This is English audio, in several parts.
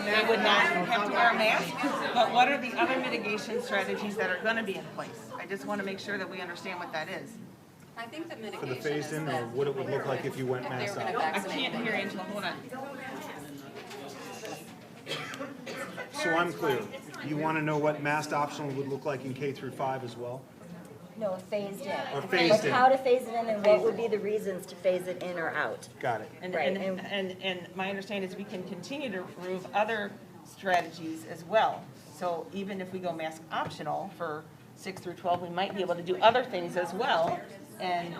they would not have to wear a mask, but what are the other mitigation strategies that are gonna be in place? I just wanna make sure that we understand what that is. I think the For mitigation the is phased-in, or that what it would look like if you went if they were mass gonna out? I vaccinate can't hear Angela, hold on. So I'm clear. You want to know what masked optional would look like in K through five as well? No, phased in. Or phased in? Like how to phase it in and what would be the reasons to phase it in or out. Got it. And, Right, and, and, and my understanding is we can continue to approve other strategies as well. So even if we go mask optional for six through twelve, we might be able to do other things as well and,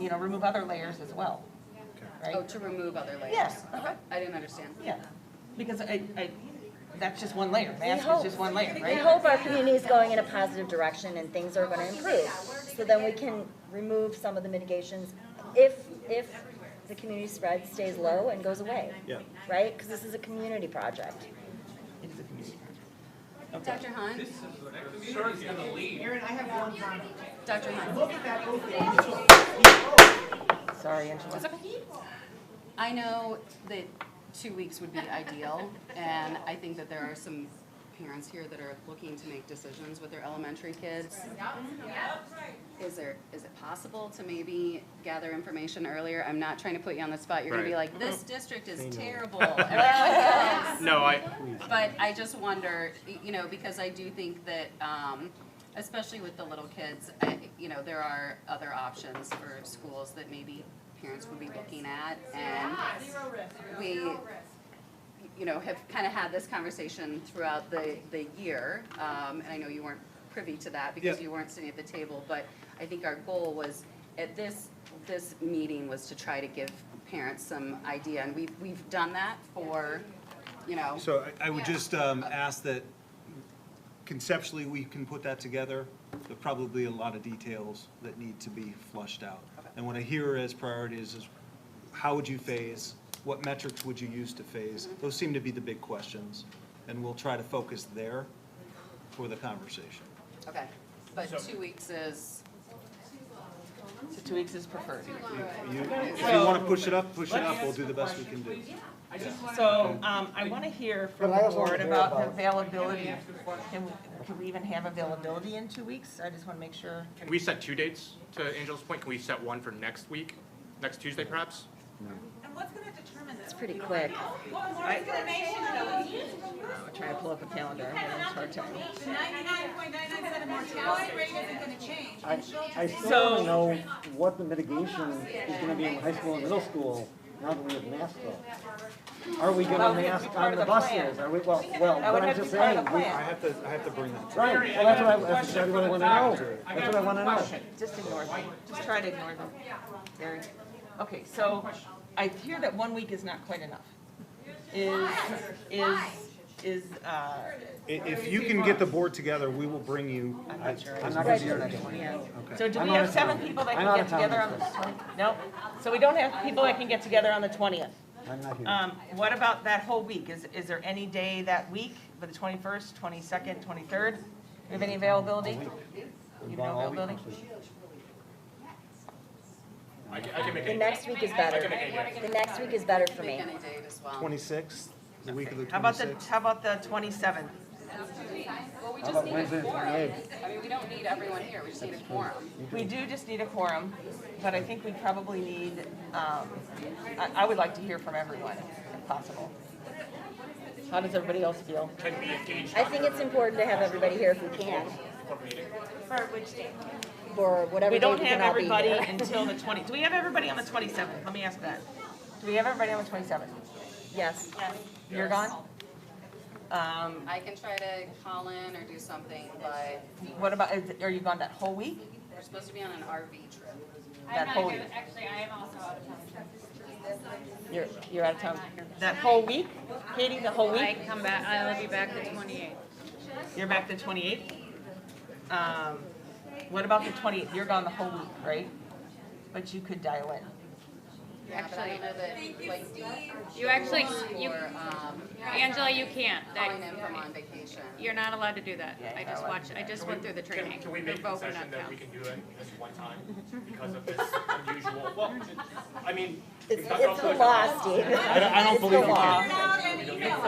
you know, remove other layers as well. Oh, Right? to remove other layers? Yes, uh-huh. I didn't understand. Yeah, because I, I, that's just one layer, We mask is hope- just one layer, We right? hope our community is going in a positive direction and things are gonna improve. So then we can remove some of the mitigations if, if the community spread stays low and goes away. Yeah. Right? Because this is a community project. It's a community project. Dr. Hunt? Aaron, I have one comment. Dr. Hunt? Look at that open. Sorry, Angela. I know that two weeks would be ideal, and I think that there are some parents here that are looking to make decisions with their elementary kids. Is there, is it possible to maybe gather information earlier? I'm not trying to put you on the spot, you're gonna be Right. like, this district is terrible. Everyone else. No, I, But I just wonder, y- you know, because I do think that, um, especially with the little kids, I, you know, there are other options for schools that maybe parents would be looking at and we, you know, have kind of had this conversation throughout the, the year. Um, and I know you weren't privy to that because Yeah. you weren't sitting at the table, but I think our goal was at this, this meeting was to try to give parents some idea. And we've, we've done that for, you know. So I I would just um, ask that conceptually, we can put that together. There are probably a lot of details that need to be flushed out. And what I hear as priorities is, how would you phase? What metrics would you use to phase? Mm-hmm. Those seem to be the big questions, and we'll try to focus there for the conversation. Okay, but two weeks is, So two weeks is preferred. You- If you want to push it up, push it up, we'll do the best we can do. So, um, I wanna hear from But I the also wanna board hear about the about- availability. Can, we- can we even have availability in two weeks? I just wanna make sure. can we set two dates to Angela's point? Can we set one for next week, next Tuesday perhaps? It's pretty quick. I- I'm trying uh, to pull up a calendar, I'm having a hard time. I, I still don't know what the mitigation is gonna be in high school and middle school now that we have masks up. Are we Well, gonna we have to mask be part on of the the plan. buses? Are we, well, well, That would what I'm have to just be part saying. of the we- I plan. have to, I have to bring that. Right, well, that's what I, that's exactly what I wanna know. That's what I wanna know. Just ignore them, just try to ignore them. There, okay, so I hear that one week is not quite enough. Is, is, is, uh, I- If you can get the board together, we will bring you. uh, I'm not sure. I'm not gonna be here next week. Yeah. Okay. So do I'm we out have of seven town. people that I'm can out get of town together on this the twentieth? No? So we don't have people that can get together on the twentieth. I'm not here. Um, what about that whole week? Is, is there any day that week, the twenty-first, twenty-second, twenty-third? Do you have any availability? You have no availability? I can, I can make The it. next week is better. The next week is better for me. Any date as well. Twenty-sixth, the week of the How about the, twenty-sixth. how about the twenty-seventh? Well, we How just about need Wednesday, a the quorum. 28th? I mean, we don't need everyone here, we just need a quorum. We do just need a quorum, but I think we probably need, um, I, I would like to hear from everyone if possible. How does everybody else feel? Can we engage I think it's important to have everybody here if we can, for meeting? for whatever We day don't we can have all be everybody here. until the twenty, do we have everybody on the twenty-seventh? Let me ask that. Do we have everybody on the twenty-seventh? Yes. You're gone? Um, I can try to call in or do something, but What about, is- are you gone that whole week? we're supposed to be on an RV trip. That I'm not whole good- week. Actually, I am also out of town. You're, you're out of town. That whole week? Katie, the whole I week? come back, I'll be back the twenty-eighth. You're back the twenty-eighth? Um, what about the twentieth? You're gone the whole week, right? But you could dial in. Actually, I don't know that, like, You actually, you, or, um, Angela, you can't, calling in from that, on vacation. you're not allowed to do that. I just watched, I just went through the Can, training. can we They're make a both are concession not that down. we can do it this one time because of this unusual, well, I mean. It's, because it's also the it's- law, Steve. I don't- I don't It's the believe you can. law.